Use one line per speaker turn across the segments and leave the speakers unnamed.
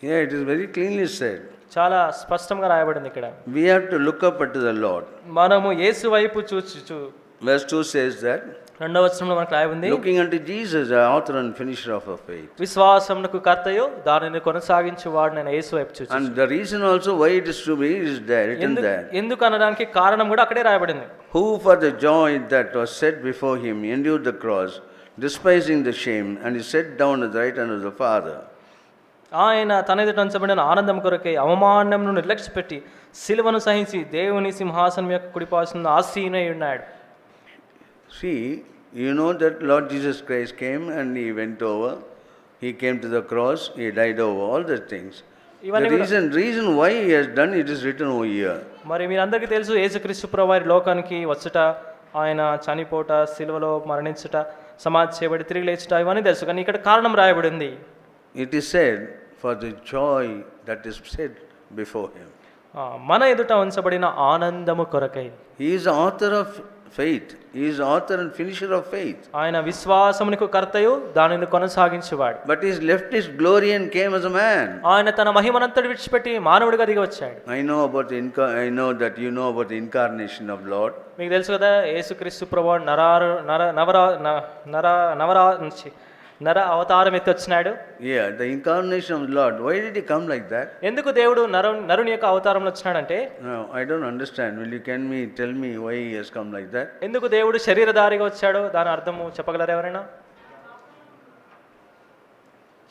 Yeah, it is very cleanly said.
చాలా స్పష్టంగా రాయబడింది ఇక్కడ
We have to look up unto the Lord.
మనము యేసు వైపు చూచి చూ
Verse 2 says that
రెండవ వచనంలో మనకు రాయి ఉంది
looking unto Jesus, the author and finisher of our faith.
విశ్వాసమునకు కర్తయో దానిని కొనసాగించేవాడు నేను యేసు వైపు చూచి
And the reason also why it is to be is there, written
ఎందుకు
there.
ఎందుకు అనడానికి కారణం కూడా అక్కడే రాయబడింది
Who for the joy that was set before him endured the cross, despising the shame, and he sat down at the right hand of the Father.
ఆయన తన ఎదుట ఉంచబడిన ఆనందం కొరకై అవమానమును నిర్లక్ష్యపెట్టి సిలువను సహించి దేవుని సింహాసనం యొక్క కుడిపాసిన ఆసీనై ఉన్నాడు
See, you know that Lord Jesus Christ came and he went over. He came to the cross, he died over all the things. The
ఇవన్నీ కూడా-
reason, reason why he has done it is written over here.
మరి మీరందరికీ తెలుసు యేసుక్రీస్తు ప్రభు వారి లోకానికి వచ్చుట ఆయన చనిపోట సిలువలో మరణించుట సమాధి చేయబడి తిరిగి లేచుట ఇవన్నీ తెలుసు కానీ ఇక్కడ కారణం రాయబడింది
It is said, for the joy that is set before him.
ఆ, మన ఎదుట ఉంచబడిన ఆనందము కొరకై
He is the author of faith, he is the author and finisher of faith.
ఆయన విశ్వాసమునకు కర్తయు దానిని కొనసాగించేవాడు
But he's left his glory and came as a man.
ఆయన తన మహిమనంతటి విడిచిపెట్టి మానవుడిగా దిగి వచ్చాడు
I know about the inca- I know that you know about the incarnation of Lord.
మీకు తెలుసు కదా యేసుక్రీస్తు ప్రభు నరారు నర నవరా న- నర నవరా నుంచి నర అవతారం ఎత్తి వచ్చినాడు
Yeah, the incarnation of Lord. Why did he come like that?
ఎందుకు దేవుడు నరు నరుని యొక్క అవతారంలో వచ్చినాడంటే
No, I don't understand. Will you can me tell me why he has come like that?
ఎందుకు దేవుడు శరీరధారిగా వచ్చాడో దాని అర్థము చెప్పగలరు ఎవరైనా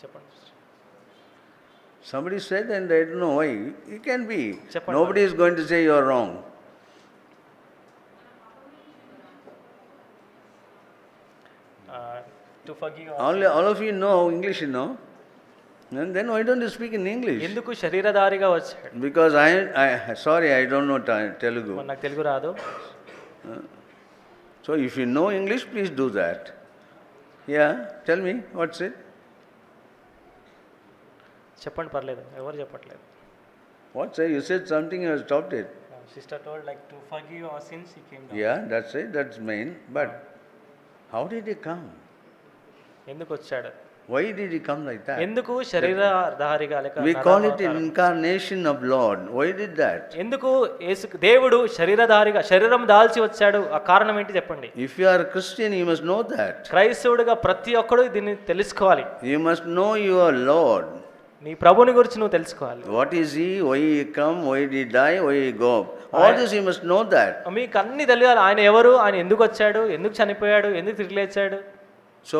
చెప్పండి
Somebody said, and I don't know why. It can be.
Chappan
Nobody is going to say you are wrong.
To forgive
All, all of you know English, you know. And then why don't you speak in English?
ఎందుకు శరీరధారిగా వచ్చాడు
Because I, I sorry, I don't know Ta- Telugu.
మరి నాకు తెలుగు రాదు
So if you know English, please do that. Yeah, tell me, what's it?
చెప్పండి పర్లేదు ఎవరు చెప్పట్లేదు
What's it? You said something, you have stopped it.
Sister told like to forgive our sins he came
Yeah, that's it, that's main. But how did he come?
ఎందుకు వచ్చాడు
Why did he come like that?
ఎందుకు శరీరధారిగా లేక
We
నర
call it
అవతారం?
an incarnation of Lord. Why did that?
ఎందుకు యేసు దేవుడు శరీరధారిగా శరీరం దాల్చి వచ్చాడు ఆ కారణం ఏంటి చెప్పండి
If you are a Christian, you must know that.
క్రైస్తవుడిగా ప్రతి ఒక్కడు దీన్ని తెలుసుకోవాలి
You must know your Lord.
నీ ప్రభుని గురించి నువ్వు తెలుసుకోవాలి
What is he? Why he come? Why did he die? Why he go? up? All this you must know that.
మీకు అన్ని తెలియాలి ఆయన ఎవరు ఆయన ఎందుకు వచ్చాడు ఎందుకు చనిపోయాడు ఎందుకు తిరిగి లేచాడు
So,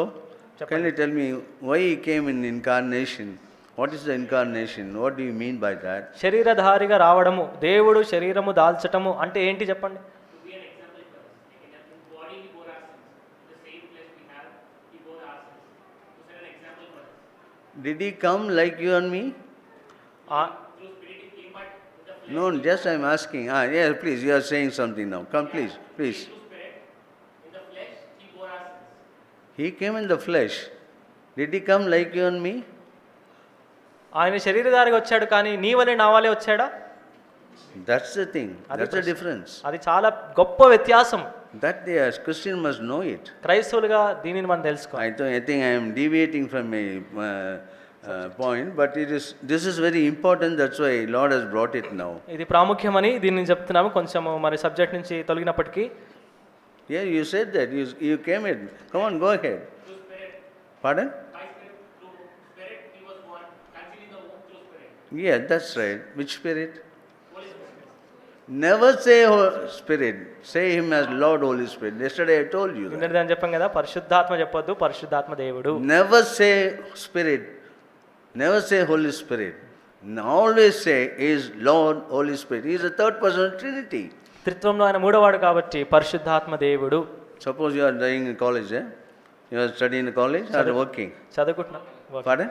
can you tell me why he came in incarnation? What is the incarnation? What do you mean by that?
శరీరధారిగా రావడము దేవుడు శరీరము దాల్చటము అంటే ఏంటి చెప్పండి
Did he come like you and me?
ఆ-
No, just I'm asking. Ah, yeah, please, you are saying something now. Come, please, please. He came in the flesh. Did he come like you and me?
ఆయన శరీరధారిగా వచ్చాడు కానీ నీ వలె నా వలె వచ్చాడా
That's the thing. That's the difference.
అది చాలా గొప్ప వ్యత్యాసం
That they as Christian must know it.
క్రైస్తవులుగా దీనిని మనం తెలుసుకోవాలి
I, th- I think I am deviating from my uh, uh, point, but it is this is very important. That's why Lord has brought it now.
ఇది ప్రాముఖ్యమని దీన్ని చెప్తున్నాము కొంచెము మరి subject నుంచి తొలగినప్పటికీ
Yeah, you said that. You, you came in. Come on, go ahead. Pardon? Yeah, that's right. Which spirit? Never say Ho- Spirit. Say Him as Lord Holy Spirit. Yesterday I told you that.
నిన్నటిది అని చెప్పాం కదా పరిశుద్ధాత్మ చెప్పొద్దు పరిశుద్ధాత్మ దేవుడు
Never say Spirit. Never say Holy Spirit. N- Always say He is Lord Holy Spirit. He is the third person of Trinity.
త్రిత్వంలో ఆయన మూడవాడు కాబట్టి పరిశుద్ధాత్మ దేవుడు
Suppose you are dying in college, eh? You are studying in college or working.
చదువుకుంటున్నా okay.
Pardon?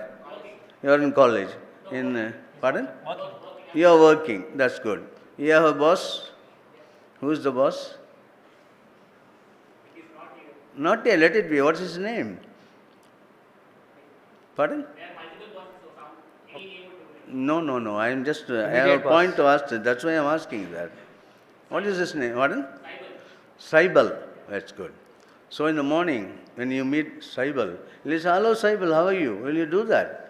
You are in college. In uh, pardon? You are working. That's good. You have a boss. Who is the boss? Not here. Let it be. What is his name? Pardon? No, no, no. I am just. Uh, I have a
Immediate boss.
point to ask. That's why I am asking that. What is his name? Pardon? Saibal. That's good. So in the morning, when you meet Saibal, he'll say, hello Saibal, how are you? Will you do that?